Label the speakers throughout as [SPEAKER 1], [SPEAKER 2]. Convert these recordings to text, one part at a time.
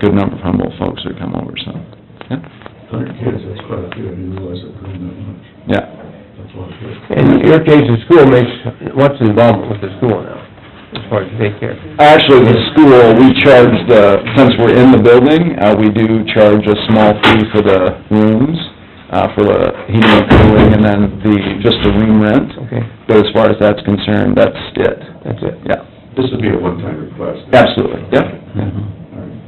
[SPEAKER 1] good number of Humboldt folks that come over, so, yeah,
[SPEAKER 2] Hundred kids, that's quite a few, I didn't realize it grew that much.
[SPEAKER 1] yeah.
[SPEAKER 2] That's a lot of kids.
[SPEAKER 3] And your case, the school makes, what's the involvement with the school now, as far as daycare?
[SPEAKER 1] Actually, the school, we charge the, since we're in the building, uh, we do charge a small fee for the rooms, uh, for the heating and cooling, and then the, just the room rent.
[SPEAKER 3] Okay,
[SPEAKER 1] But as far as that's concerned, that's it,
[SPEAKER 3] that's it.
[SPEAKER 1] yeah,
[SPEAKER 2] This would be a one-time request.
[SPEAKER 1] absolutely, yeah.
[SPEAKER 2] All right.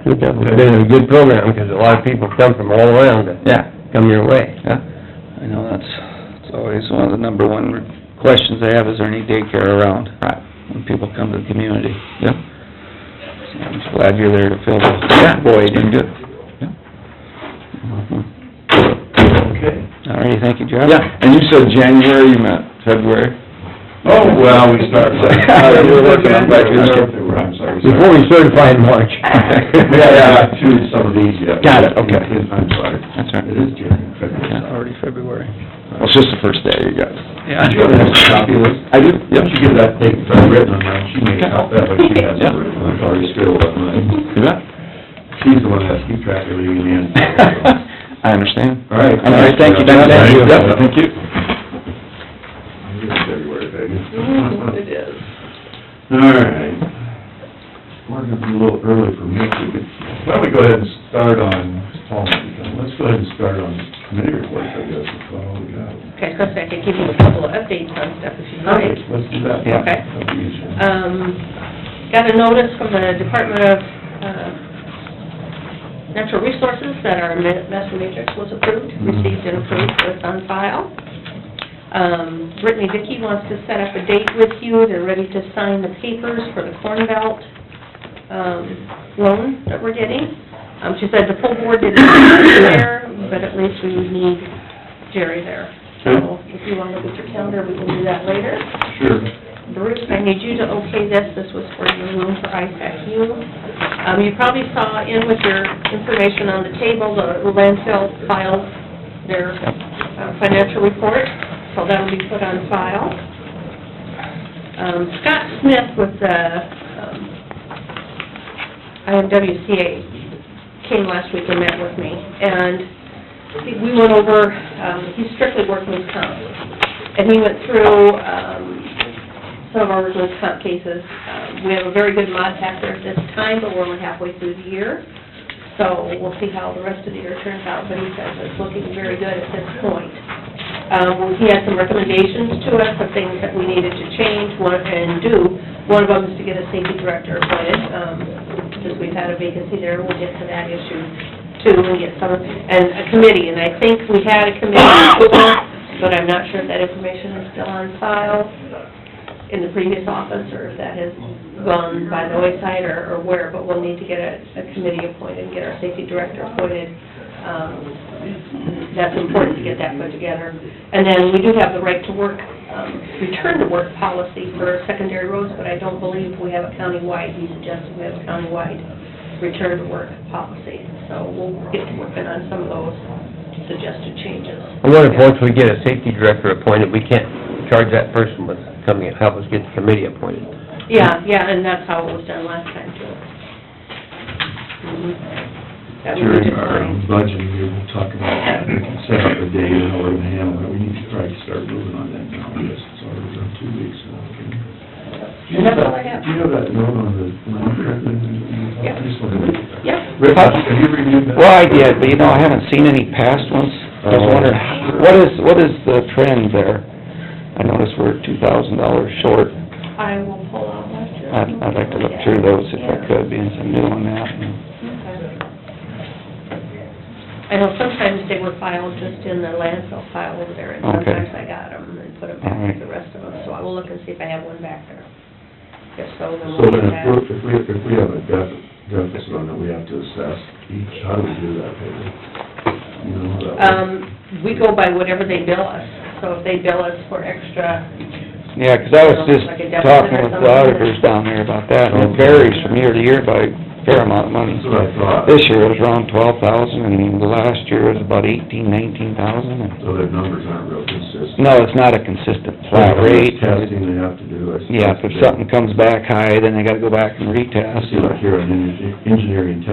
[SPEAKER 3] Good job. It's been a good program, because a lot of people come from all around to
[SPEAKER 1] Yeah,
[SPEAKER 3] come your way.
[SPEAKER 1] yeah. I know, that's, it's always one of the number one questions I have, is there any daycare around? Right. When people come to the community. Yeah. I'm just glad you're there to fill the void. and good.
[SPEAKER 2] Okay.
[SPEAKER 3] All right, thank you, John.
[SPEAKER 1] Yeah, and you said January, you meant February?
[SPEAKER 2] Oh, well, we start.
[SPEAKER 1] Yeah, we're working on budget.
[SPEAKER 2] I don't think we're- I'm sorry. sorry.
[SPEAKER 3] Before we certify in March.
[SPEAKER 2] We haven't got to some of these yet.
[SPEAKER 1] Got it, okay.
[SPEAKER 2] I'm sorry.
[SPEAKER 1] That's all right.
[SPEAKER 2] It is during February.
[SPEAKER 1] Yeah. Already February. Well, it's just the first day, you guys.
[SPEAKER 2] Yeah. Do you have a copy of this?
[SPEAKER 1] I do,
[SPEAKER 2] Yep,
[SPEAKER 1] yep.
[SPEAKER 2] she get that thing that I written on mine, she made a copy, that way she has it,
[SPEAKER 1] Yeah.
[SPEAKER 2] written. I've already scribbled on mine.
[SPEAKER 1] You bet.
[SPEAKER 2] She's the one that has to keep track of everything in the end.
[SPEAKER 1] I understand.
[SPEAKER 2] All right.
[SPEAKER 1] All right, thank you, John.
[SPEAKER 2] Thank you.
[SPEAKER 1] Yep, thank you.
[SPEAKER 2] It's February,
[SPEAKER 4] It
[SPEAKER 2] baby.
[SPEAKER 4] is.
[SPEAKER 2] All right. We're gonna be a little early for me, we could, why don't we go ahead and start on, Paul, let's go ahead and start on committee reports, I guess, that's all we got.
[SPEAKER 4] Okay, Chris, I could give you a couple of updates on stuff if you'd like.
[SPEAKER 2] Let's do that.
[SPEAKER 4] Yeah. Okay.
[SPEAKER 2] That'd be easier.
[SPEAKER 4] Um, got a notice from the Department of, uh, Natural Resources that our ma- master matrix was approved, received and approved, so it's on file. Um, Brittany Dickey wants to set up a date with you, they're ready to sign the papers for the Corn Belt, um, loan that we're getting. Um, she said the full board didn't get there, but at least we would need Jerry there. So if you wanna look at your calendar, we can do that later.
[SPEAKER 2] Sure.
[SPEAKER 4] Bruce, I need you to okay this, this was for your room for ISACU. Um, you probably saw in with your information on the table, the landfill filed their uh, financial report, so that'll be put on file. Um, Scott Smith with the, um, IMWCA came last week and met with me, and we went over, um, he's strictly workman's comp, and he went through, um, some of our workers' comp cases. Uh, We have a very good mod factor at this time, but we're only halfway through the year, so we'll see how the rest of the year turns out, but he says it's looking very good at this point. Uh, well, He had some recommendations to us of things that we needed to change one- and do. One of them is to get a safety director appointed, um, since we've had a vacancy there, we'll get to that issue too, and get some, and a committee, and I think we had a committee before, but I'm not sure if that information is still on file in the previous office, or if that has gone by the wayside, or, or where, but we'll need to get a, a committee appointed, get our safety director appointed. Um, That's important to get that put together. And then we do have the right to work, um, return to work policy for secondary roads, but I don't believe we have a countywide, he suggested we have a countywide return to work policy. So we'll get to working on some of those suggested changes.
[SPEAKER 3] I wonder if once we get a safety director appointed, we can't charge that person with coming and help us get the committee appointed.
[SPEAKER 4] Yeah, yeah, and that's how it was done last time too. Mhm. That we
[SPEAKER 2] During
[SPEAKER 4] just
[SPEAKER 2] our
[SPEAKER 4] signed.
[SPEAKER 2] budgeting, we will talk about that, we can set up a day and how we're gonna handle it, we need to try to start moving on that now, because it's already been two weeks. so we can- Do you have that, do you have that note on the line currently?
[SPEAKER 4] Yep.
[SPEAKER 2] I just wanted to.
[SPEAKER 4] Yep.
[SPEAKER 2] Rick, have you reviewed that?
[SPEAKER 1] Well, I did, but you know, I haven't seen any past ones. I
[SPEAKER 3] Oh.
[SPEAKER 1] was wondering, what is, what is the trend there? I noticed we're two thousand dollars short.
[SPEAKER 4] I will pull out last year.
[SPEAKER 1] I'd, I'd like to look through those if I could, being some new on that.
[SPEAKER 4] I know sometimes they were filed just in the landfill file over there, and
[SPEAKER 1] Okay.
[SPEAKER 4] sometimes I got them and put them back
[SPEAKER 1] All right.
[SPEAKER 4] with the rest of them, so I will look and see if I have one back there. If so,
[SPEAKER 2] So
[SPEAKER 4] then
[SPEAKER 2] then
[SPEAKER 4] we'll get
[SPEAKER 2] if
[SPEAKER 4] that.
[SPEAKER 2] we're, if we, if we have a def- deficit on it, we have to assess each, how do we do that, Peggy? You know, that would-
[SPEAKER 4] Um, we go by whatever they bill us, so if they bill us for extra
[SPEAKER 5] Yeah, 'cause I was just
[SPEAKER 4] Like a deficit
[SPEAKER 5] talking
[SPEAKER 4] or
[SPEAKER 5] with the
[SPEAKER 4] something.
[SPEAKER 5] auditors down there about that, and it varies from year to year by a fair amount of money.
[SPEAKER 2] That's what I thought.
[SPEAKER 5] This year it was around twelve thousand, and the last year it was about eighteen, nineteen thousand, and,
[SPEAKER 2] So their numbers aren't real consistent.
[SPEAKER 5] no, it's not a consistent flat rate.
[SPEAKER 2] Testing they have to do. I
[SPEAKER 5] Yeah, if
[SPEAKER 2] suppose.
[SPEAKER 5] something comes back high, then they gotta go back and
[SPEAKER 2] I
[SPEAKER 5] retest.
[SPEAKER 2] see like here on engineering testing,